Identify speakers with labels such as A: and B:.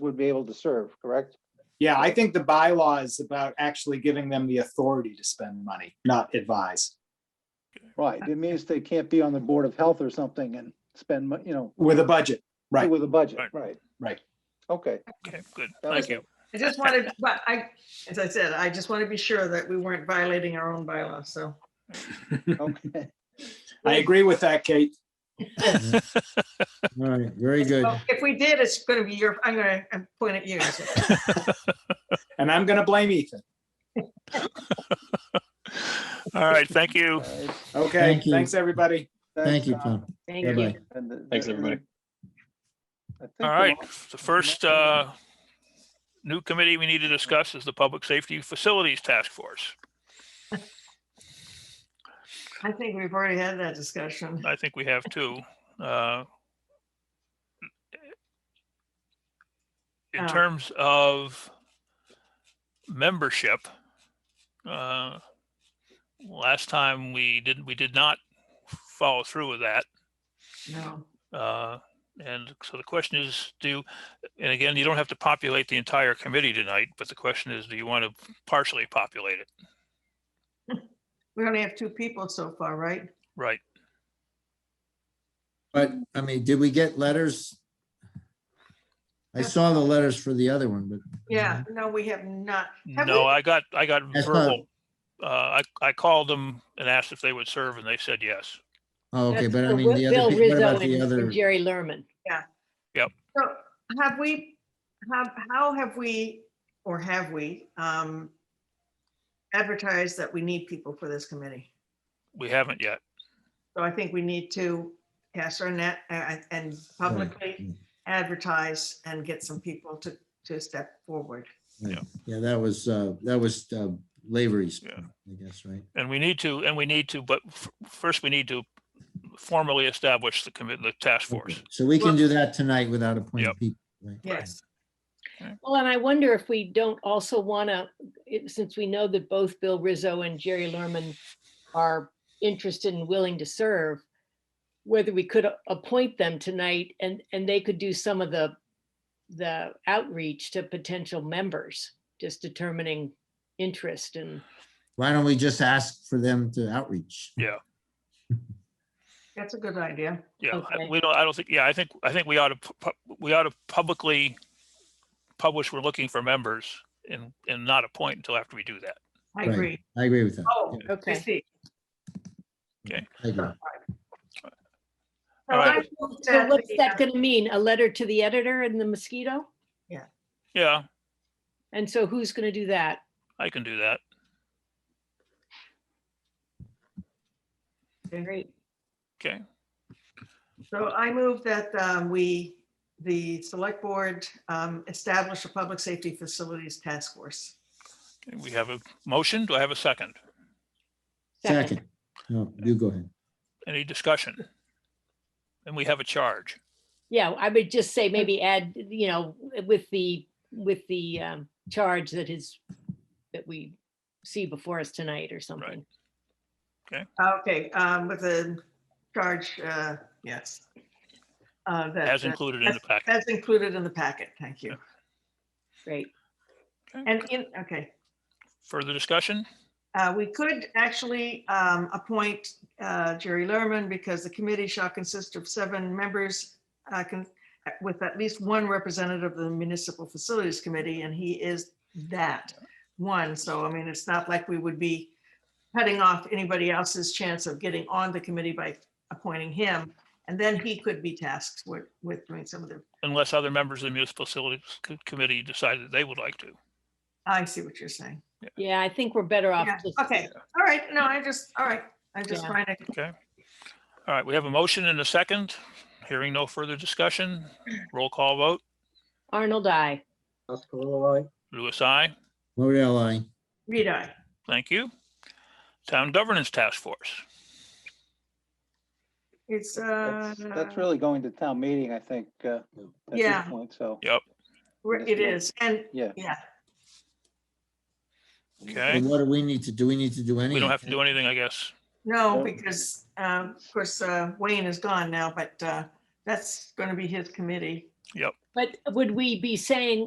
A: would be able to serve, correct?
B: Yeah, I think the bylaw is about actually giving them the authority to spend money, not advise.
A: Right, it means they can't be on the Board of Health or something and spend, mon- you know,
B: With a budget, Right.
A: with a budget,
C: Right.
A: right?
B: Right.
A: Okay,
C: Okay, good.
A: That
C: Thank
A: was-
C: you.
D: I just wanted, but I, as I said, I just want to be sure that we weren't violating our own bylaws, so.
A: okay.
B: I agree with that, Kate.
E: All right, very good.
D: Well, If we did, it's going to be your, I'm going to point at you. so.
B: And I'm going to blame Ethan.
C: All right, thank you.
A: All right.
B: Okay,
E: Thank you.
B: thanks, everybody.
E: Thank you,
A: Tom.
E: Tom. Bye-bye.
A: And the-
F: Thanks,
A: and the-
F: everybody.
A: I think
C: All
A: the
C: right,
A: one-
C: the first uh, new committee we need to discuss is the Public Safety Facilities Task Force.
D: I think we've already had that discussion.
C: I think we have two. uh, In
D: Oh.
C: terms of membership, uh, last time we didn't, we did not follow through with that.
D: No,
C: Uh, And so the question is, do, and again, you don't have to populate the entire committee tonight, but the question is, do you want to partially populate it?
D: we only have two people so far, right?
C: Right,
E: But, I mean, did we get letters? I saw the letters for the other one, but.
D: Yeah, no, we have not. Have
C: no,
D: we-
C: I got, I got
E: That's not-
C: verbal. Uh, I, I called them and asked if they would serve and they said yes.
E: Oh, Okay,
G: That's
E: but I
G: for
E: mean, the
G: Bill
E: other, peo- what
G: Rizzo
E: about the
G: and- and
E: other?
G: Jerry Lerman.
D: So have we, have, how have we, or have we um advertised that we need people for this committee?
C: We haven't yet.
D: So I think we need to cast our net uh, and publicly advertise and get some people to, to step forward.
E: Yeah, that was, uh, that was, uh, Lavery's,
C: Yeah.
E: I guess, right?
C: And we need to, and we need to, but f- first we need to formally establish the commit, the task force.
E: Okay, So we can
D: Well-
E: do that tonight without appointing
C: Yep.
E: people, right?
D: Yes.
G: Well, and I wonder if we don't also want to, since we know that both Bill Rizzo and Jerry Lerman are interested and willing to serve, whether we could a- appoint them tonight and, and they could do some of the, the outreach to potential members, just determining interest and,
E: Why don't we just ask for them to outreach?
D: That's a good idea.
C: Yeah, I-
G: Okay.
C: we don't, I don't think, yeah, I think, I think we ought to, pu- pu- we ought to publicly publish we're looking for members and, and not appoint until after we do that.
D: I
E: Right.
D: agree.
E: I agree with that.
D: Oh, I
G: okay.
D: see.
E: I agree.
D: Oh, So
C: All right.
D: I move
G: So
D: that
G: what's
D: the,
G: that
D: uh,
G: going to mean? A letter to the editor and the mosquito?
C: Yeah,
G: And so who's going to do that?
C: I can do that.
G: Great.
C: Okay,
D: So I move that um, we, the select board um, establish a public safety facilities task force.
C: Okay, we have a motion. Do I have a second?
E: Second, no, you go ahead.
C: Any discussion? And we have a charge.
G: Yeah, I would just say maybe add, you know, with the, with the um, charge that is, that we see before us tonight or something.
D: Okay, um, with a charge, uh, yes. Uh, that-
C: As
D: that-
C: included in the packet.
D: That's included in the packet. Thank you.
G: Great.
D: And in, okay.
C: Further discussion?
D: Uh, We could actually um, appoint uh, Jerry Lerman because the committee shall consist of seven members uh, con- with at least one representative of the Municipal Facilities Committee, and he is that one. So I mean, it's not like we would be cutting off anybody else's chance of getting on the committee by appointing him. And then he could be tasked with, with doing some of the,
C: Unless other members of the municipal facilities Co- committee decide that they would like to.
D: I see what you're saying.
G: Yeah, I think we're better off.
D: Yeah,
G: just-
D: Okay, all right, no, I just, all right, I'm just
G: Yeah.
D: trying to
C: All right, we have a motion and a second. Hearing no further discussion. Roll call vote.
G: Arnold, I.
C: Louis, I.
E: Modell, I.
D: read I.
C: Thank you. Town Governance Task Force.
D: It's, uh.
A: That's that's really going to town meeting, I think, uh, at this
D: Yeah.
A: point, so.
C: Yep,
D: Where It is, and,
A: Yeah.
D: yeah,
C: okay.
E: What do we need to, do we need to do anything?
C: We don't have to do anything, I guess.
D: no, because, um, uh, of course, uh, Wayne is gone now, but uh, that's going to be his committee.
C: Yep.
G: But would we be saying